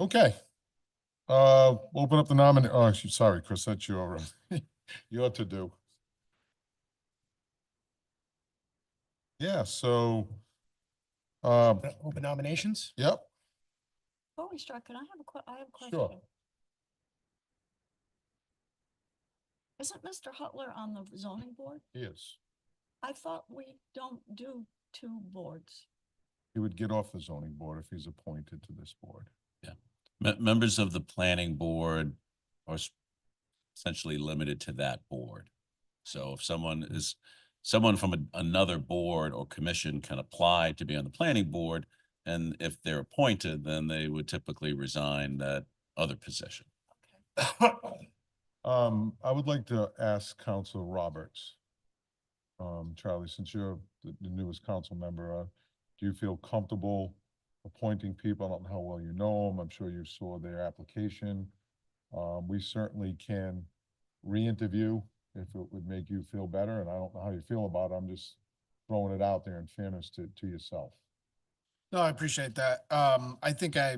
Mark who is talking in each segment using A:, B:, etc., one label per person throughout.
A: Okay. Uh, open up the nominee, oh, actually, sorry, Chris, that's your, uh, your to-do. Yeah, so, uh,
B: Uh, Open nominations?
A: yep,
C: Before we start, can I have a que- I have a question?
A: Sure.
C: Isn't Mr. Hutler on the zoning board?
A: he is.
C: I thought we don't do two boards.
A: He would get off the zoning board if he's appointed to this board.
D: Me- members of the planning board are s- essentially limited to that board. So if someone is, someone from a- another board or commission can apply to be on the planning board. And if they're appointed, then they would typically resign that other position.
C: Okay.
A: Um, I would like to ask Council Roberts. Um, Charlie, since you're the the newest council member, uh, do you feel comfortable appointing people? I don't know how well you know them. I'm sure you saw their application. Um, we certainly can re-interview if it would make you feel better, and I don't know how you feel about it. I'm just throwing it out there in fairness to, to yourself.
B: No, I appreciate that. Um, I think I,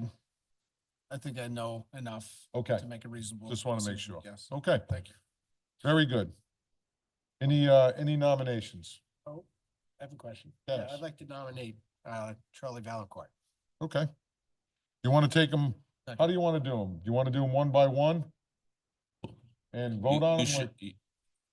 B: I think I know enough
A: Okay,
B: to make a reasonable.
A: just wanna make
B: decision,
A: sure.
B: Yes.
A: okay,
B: Thank you.
A: very good. Any, uh, any nominations?
B: Oh, I have a question. Yeah,
A: Dennis?
B: I'd like to nominate, uh, Charlie Valencourt.
A: Okay. You want to take them, how do
B: Second.
A: you want to do them? Do you want to do them one by one? And vote
D: You-
A: on them?
D: you should- you-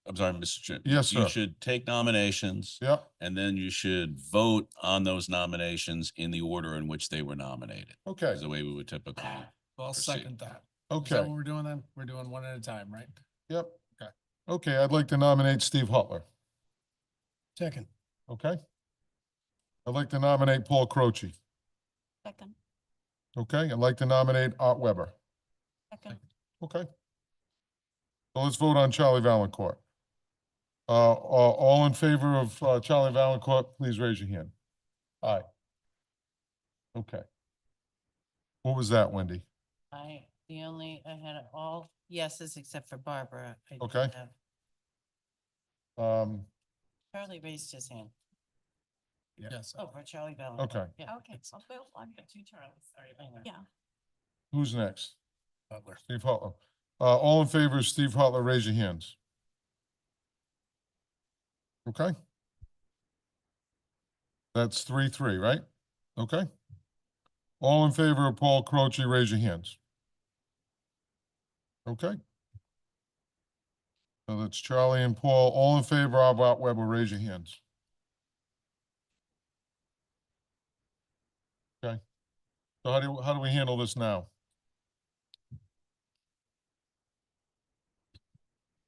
D: I'm sorry, Mr. Chair.
A: Yes, sir.
D: You should take nominations
A: Yeah,
D: and then you should vote on those nominations in the order in which they were nominated.
A: okay,
D: Is the way we would typically
B: Well, I'll
D: Proceed.
B: second that. Is that
A: okay,
B: what we're doing then? We're doing one at a time, right?
A: yep.
B: Okay.
A: Okay, I'd like to nominate Steve Hutler,
B: Second.
A: okay? I'd like to nominate Paul Croce,
C: Second,
A: okay? I'd like to nominate Art Weber,
C: second,
A: okay? So let's vote on Charlie Valencourt. Uh, a- all in favor of uh, Charlie Valencourt, please raise your hand. Aye. Okay. What was that, Wendy?
E: I, the only, I had all yeses except for Barbara. I didn't
A: Okay.
E: have-
A: Um,
E: Charlie raised his hand.
B: Yes.
E: Oh, for Charlie Bell.
A: okay,
E: Yeah.
C: okay, so Bill, I'm,
E: Two Charlies, sorry about that.
C: yeah,
A: who's next?
B: Butler.
A: Steve Hutler. Uh, all in favor of Steve Hutler, raise your hands. Okay? That's three, three, right? Okay? All in favor of Paul Croce, raise your hands. Okay? So that's Charlie and Paul. All in favor of Art Weber, raise your hands. Okay? So how do, how do we handle this now?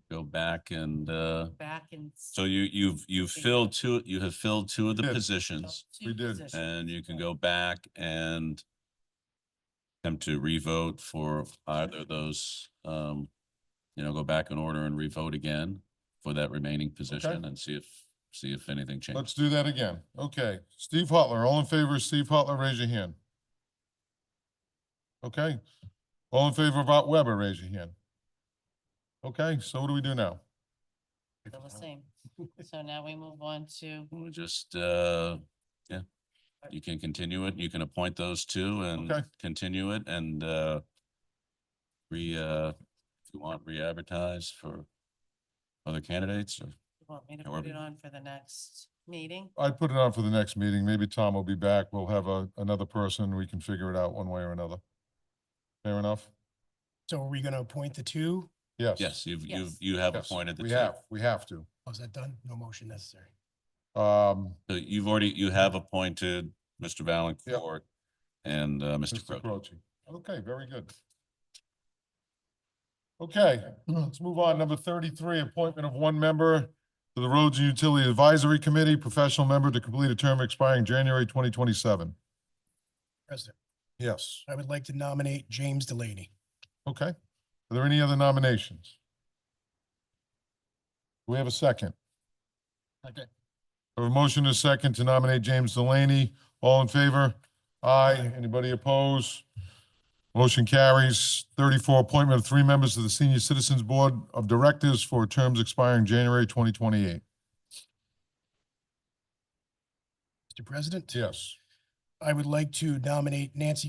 D: go back and, uh,
E: Back and. s-
D: So you, you've, you've filled two, you have filled two of the
A: Yes.
E: well,
D: positions
E: two
A: we did,
E: positions.
D: and you can go back and attempt to revote for either of those, um, you know, go back in order and revote again for that remaining position and see if, see if anything
A: Let's
D: changes.
A: do that again. Okay, Steve Hutler, all in favor of Steve Hutler, raise your hand. Okay, all in favor of Art Weber, raise your hand. Okay, so what do we do now?
E: Still the same. So now we move on to,
D: We'll just, uh, yeah, you can continue it. You can appoint those two and
A: Okay.
D: continue it and, uh, re, uh, if you want, re-advertise for other candidates or
E: you want me to put
D: However-
E: it on for the next meeting?
A: I'd put it on for the next meeting. Maybe Tom will be back. We'll have a, another person. We can figure it out one way or another. Fair enough?
B: So are we gonna appoint the two?
A: Yes.
D: Yes, you've, you've,
C: Yes.
D: you have
A: yes,
D: appointed the
A: We
D: two.
A: have, we have to.
B: Oh, is that done? No motion necessary.
A: Um,
D: So you've already, you have appointed Mr. Valencourt and, uh, Mr.
A: Mr.
D: Crowe.
A: Croce. Okay, very good. Okay, let's move on. Number thirty-three, appointment of one member to the Roads and Utility Advisory Committee, professional member to complete a term expiring January twenty twenty-seven.
B: President,
A: Yes.
B: I would like to nominate James Delaney.
A: Okay. Are there any other nominations? Do we have a second?
B: Okay.
A: I have a motion and a second to nominate James Delaney. All in favor? Aye.
B: Aye.
A: Anybody opposed? Motion carries. Thirty-four, appointment of three members to the Senior Citizens Board of Directors for terms expiring January twenty twenty-eight.
B: Mr. President?
A: Yes.
B: I would like to nominate Nancy